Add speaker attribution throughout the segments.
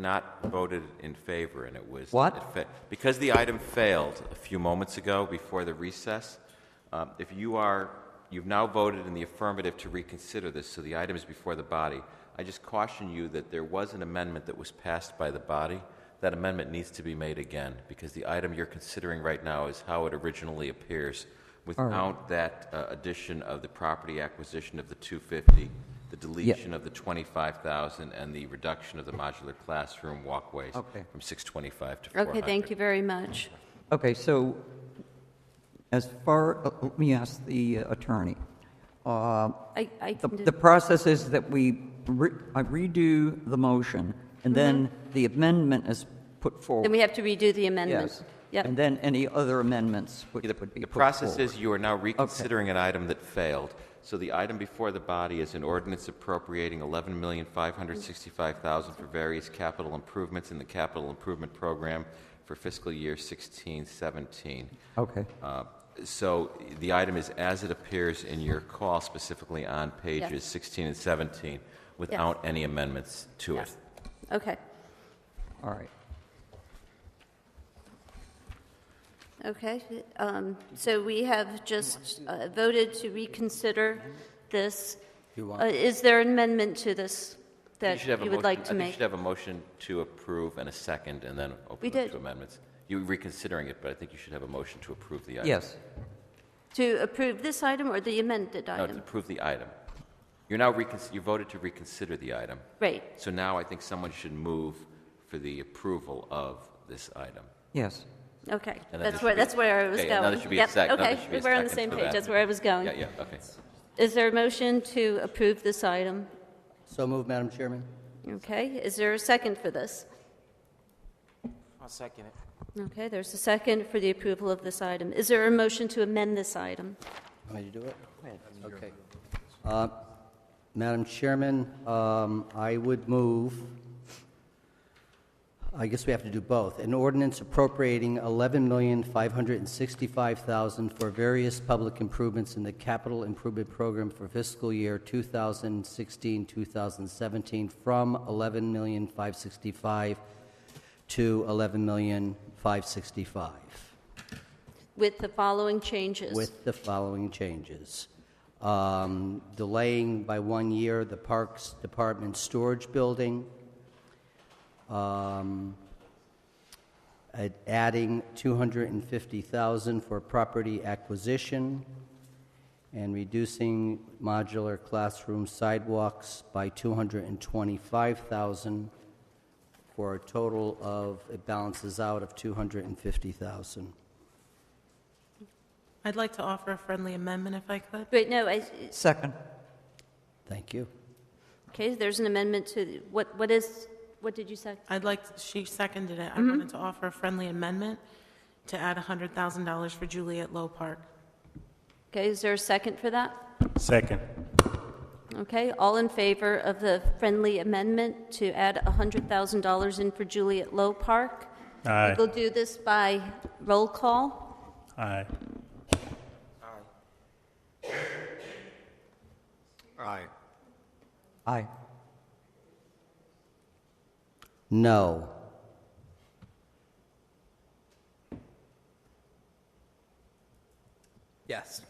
Speaker 1: not voted in favor, and it was...
Speaker 2: What?
Speaker 1: it fa- Because the item failed a few moments ago before the recess, um, if you are, you've now voted in the affirmative to reconsider this, so the item is before the body. I just caution you that there was an amendment that was passed by the body. That amendment needs to be made again, because the item you're considering right now is how it originally appears, without that uh, addition of the property acquisition of the 250, the deletion of the 25,000 and the reduction of the modular classroom walkways
Speaker 2: Okay.
Speaker 1: from 625 to 400.
Speaker 3: Okay, thank you very much.
Speaker 2: Okay, so as far, uh, let me ask the attorney. Uh,
Speaker 3: I, I
Speaker 2: The
Speaker 3: can
Speaker 2: the
Speaker 3: do,
Speaker 2: process is that we re- I redo the motion, and then the amendment is put forward.
Speaker 3: then we have to redo Mm-hmm. the amendment.
Speaker 2: Yes. And
Speaker 3: Yep,
Speaker 2: then any other amendments would
Speaker 1: The
Speaker 2: would be
Speaker 1: the
Speaker 2: put
Speaker 1: process
Speaker 2: forward.
Speaker 1: is you are now reconsidering an item that failed. So the item before the body is an ordinance appropriating $11,565,000 for various capital improvements in the capital improvement program for fiscal year 1617.
Speaker 2: Okay,
Speaker 1: Uh, So the item is as it appears in your call specifically on pages
Speaker 3: Yes.
Speaker 1: 16 and 17 without any amendments to it.
Speaker 3: Yes. okay,
Speaker 2: all right.
Speaker 3: okay. Um, So we have just uh, voted to reconsider this. Uh, Is there an amendment to this
Speaker 1: You
Speaker 3: that
Speaker 1: should have a
Speaker 3: you would
Speaker 1: motion-
Speaker 3: like to
Speaker 1: I think you
Speaker 3: make?
Speaker 1: should have a motion to approve and a second, and then
Speaker 3: We
Speaker 1: open up
Speaker 3: did.
Speaker 1: to amendments. You were reconsidering it, but I think you should have a motion to approve the item.
Speaker 2: Yes,
Speaker 3: To approve this item or the amended
Speaker 1: No, to
Speaker 3: item?
Speaker 1: approve the item. You're now, recon- you voted to reconsider the item.
Speaker 3: Right,
Speaker 1: So now I think someone should move for the approval of this item.
Speaker 2: yes.
Speaker 3: okay.
Speaker 1: And then there
Speaker 3: That's
Speaker 1: should
Speaker 3: where,
Speaker 1: be-
Speaker 3: that's where I was
Speaker 1: okay,
Speaker 3: going.
Speaker 1: now there should be a
Speaker 3: Yep,
Speaker 1: sec- now there
Speaker 3: Okay,
Speaker 1: should be
Speaker 3: we
Speaker 1: a
Speaker 3: we're on the
Speaker 1: second
Speaker 3: same
Speaker 1: for
Speaker 3: page,
Speaker 1: that.
Speaker 3: that's where I was going.
Speaker 1: Yeah, yeah, okay.
Speaker 3: Is there a motion to approve this item?
Speaker 4: So moved, Madam Chairman.
Speaker 3: Okay, is there a second for this?
Speaker 5: I'll second it.
Speaker 3: Okay, there's a second for the approval of this item. Is there a motion to amend this item?
Speaker 4: Want me to do it? Okay. Uh, Madam Chairman, um, I would move, I guess we have to do both, an ordinance appropriating $11,565,000 for various public improvements in the capital improvement program for fiscal year 2016-2017 from $11,565 to $11,565.
Speaker 3: With the following changes?
Speaker 4: with the following changes. Um, Delaying by one year the Parks Department storage building. Um, ad- Adding 250,000 for property acquisition and reducing modular classroom sidewalks by 225,000 for a total of, it balances out of 250,000.
Speaker 6: I'd like to offer a friendly amendment if I could.
Speaker 3: Wait, no, I,
Speaker 2: Second,
Speaker 4: Thank you.
Speaker 3: okay, there's an amendment to, what, what is, what did you say?
Speaker 6: I'd like, to- she seconded it. I wanted to offer a friendly amendment to add $100,000 for Juliet Low Park.
Speaker 3: Okay, is there a second for that?
Speaker 7: Second.
Speaker 3: Okay, all in favor of the friendly amendment to add $100,000 in for Juliet Low Park?
Speaker 7: Aye.
Speaker 3: We'll do this by roll call.
Speaker 7: Aye.
Speaker 2: aye.
Speaker 4: No.
Speaker 5: Yes.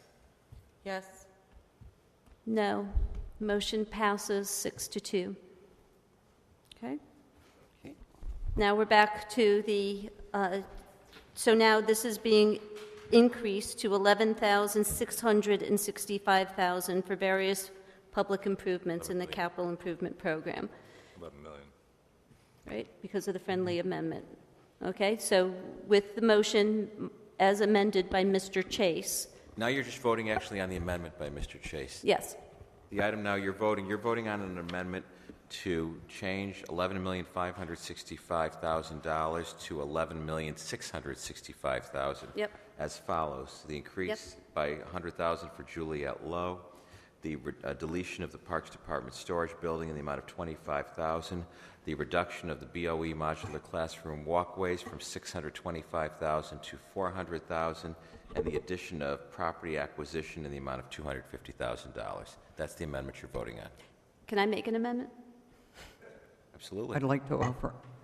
Speaker 6: Yes.
Speaker 3: No. Motion passes six to two. Okay? Now we're back to the, uh, so now this is being increased to 11,665,000 for various public improvements in the capital improvement program. 11 million. Right, because of the friendly amendment. Okay, so with the motion as amended by Mr. Chase,
Speaker 1: Now you're just voting actually on the amendment by Mr. Chase.
Speaker 3: yes,
Speaker 1: The item now you're voting, you're voting on an amendment to change $11,565,000 to $11,665,000.
Speaker 3: Yep.
Speaker 1: As follows, the increase by 100,000 for Juliet Lowe, the re- uh, deletion of the Parks Department storage building in the amount of 25,000, the reduction of the BOE modular classroom walkways from 625,000 to 400,000, and the addition of property acquisition in the amount of $250,000. That's the amendment you're voting on.
Speaker 3: can I make an amendment?
Speaker 1: I'm Absolutely.
Speaker 2: I'd like to offer